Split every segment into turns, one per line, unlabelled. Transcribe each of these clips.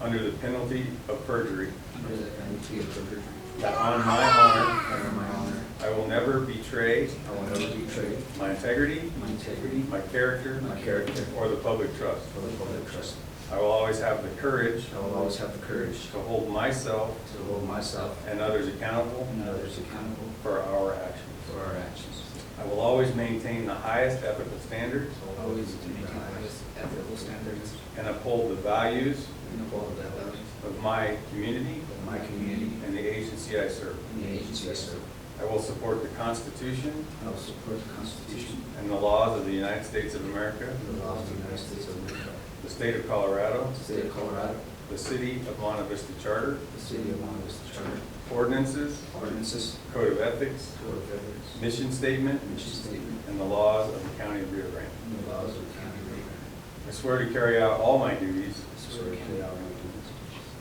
under the penalty of perjury,
under the penalty of perjury.
that on my honor,
And on my honor,
I will never betray
I will never betray
my integrity,
my integrity,
my character,
my character,
or the public trust.
or the public trust.
I will always have the courage
I will always have the courage
to hold myself
to hold myself
and others accountable
and others accountable
for our actions.
for our actions.
I will always maintain the highest ethical standards
I will Always maintain the highest ethical standards
and uphold the values
and uphold the values
of my community
of my community
and the agency I serve.
and the agency I serve.
I will support the Constitution
I will support the Constitution
and the laws of the United States of America,
and the laws of the United States of America,
the state of Colorado,
the state of Colorado,
the city of Monte Vista Charter,
the city of Long Vista Charter,
ordinances,
ordinances,
code of ethics,
code of ethics,
mission statement,
mission statement,
and the laws of the county of Rio Grande.
and the laws of the county of Rio Grande.
I swear to carry out all my duties,
So swear to carry out my duties,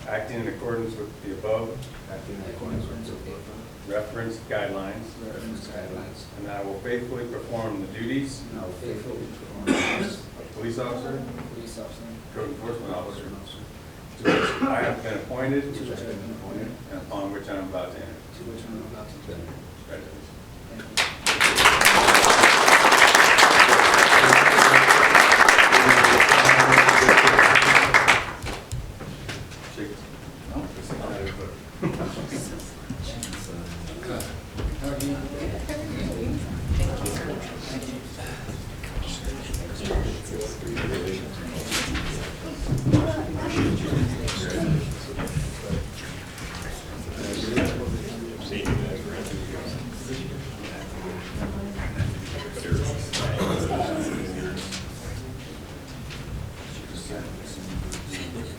acting in accordance with the above
acting in accordance with the above
referenced guidelines,
referenced guidelines,
and that I will faithfully perform the duties
and I will faithfully perform the duties
of police officer,
of police officer,
code enforcement officer,
and officer,
to which I have been appointed
to which I have been appointed,
and upon which I am about to enter.
to which I am about to enter.
Congratulations.
Thank you.
Shake.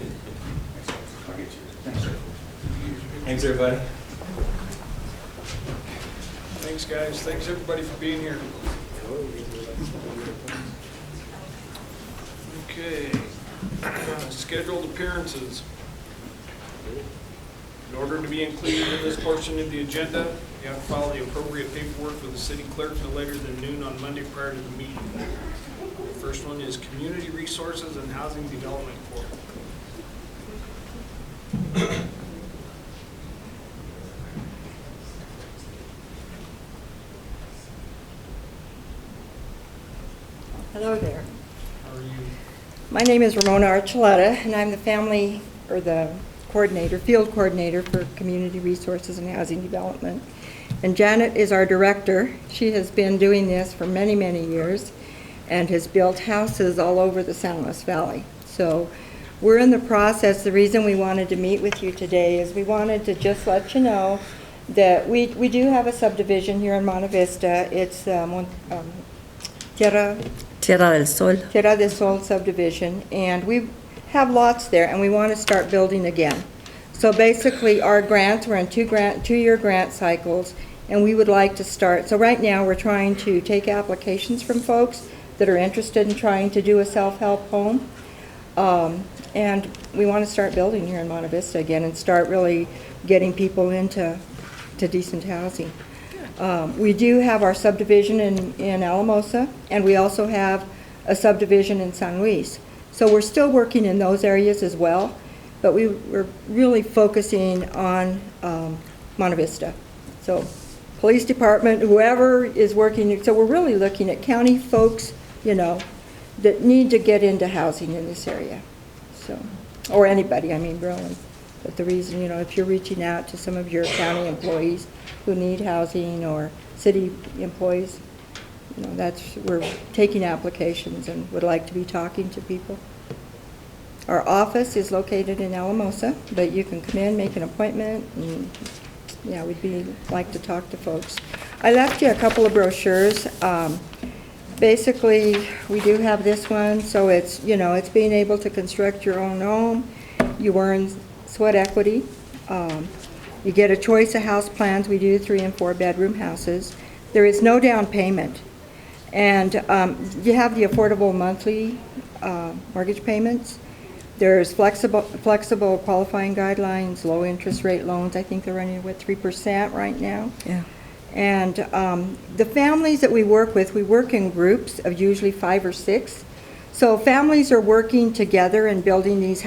I'll get you. Thanks, everybody.
Thanks, guys. Thanks, everybody, for being here. Okay. Uh, Scheduled appearances. In order to be included in this portion of the agenda, you have to file the appropriate paperwork with the city clerk no later than noon on Monday prior to the meeting. The First one is Community Resources and Housing Development Corp.
Hello there.
Are you,
My name is Ramona Archuleta, and I'm the family, or the coordinator, field coordinator for Community Resources and Housing Development. And Janet is our director. She has been doing this for many, many years and has built houses all over the San Luis Valley. So we're in the process, the reason we wanted to meet with you today is we wanted to just let you know that we, we do have a subdivision here in Monte Vista. It's uh, Mon- um, Tierra
Tierra del Sol.
Tierra del Sol subdivision, and we have lots there, and we want to start building again. So basically, our grants, we're in two grant, two-year grant cycles, and we would like to start, so right now, we're trying to take applications from folks that are interested in trying to do a self-help home. Um, And we want to start building here in Monte Vista again and start really getting people into to decent housing. Um, We do have our subdivision in in Alamosa, and we also have a subdivision in San Luis. So we're still working in those areas as well, but we we're really focusing on um, Monte Vista. So, police department, whoever is working, so we're really looking at county folks, you know, that need to get into housing in this area, so, or anybody, I mean, really. But the reason, you know, if you're reaching out to some of your county employees who need housing or city employees, you know, that's, we're taking applications and would like to be talking to people. Our office is located in Alamosa, but you can come in, make an appointment, and, yeah, we'd be, like to talk to folks. I left you a couple of brochures. Um, Basically, we do have this one, so it's, you know, it's being able to construct your own home. You earn sweat equity. Um, You get a choice of house plans. We do three and four-bedroom houses. There is no down payment. And um, you have the affordable monthly uh, mortgage payments. There's flexible, flexible qualifying guidelines, low interest rate loans. I think they're running, what, 3% right now?
Yeah.
And um, the families that we work with, we work in groups of usually five or six. So families are working together and building these houses.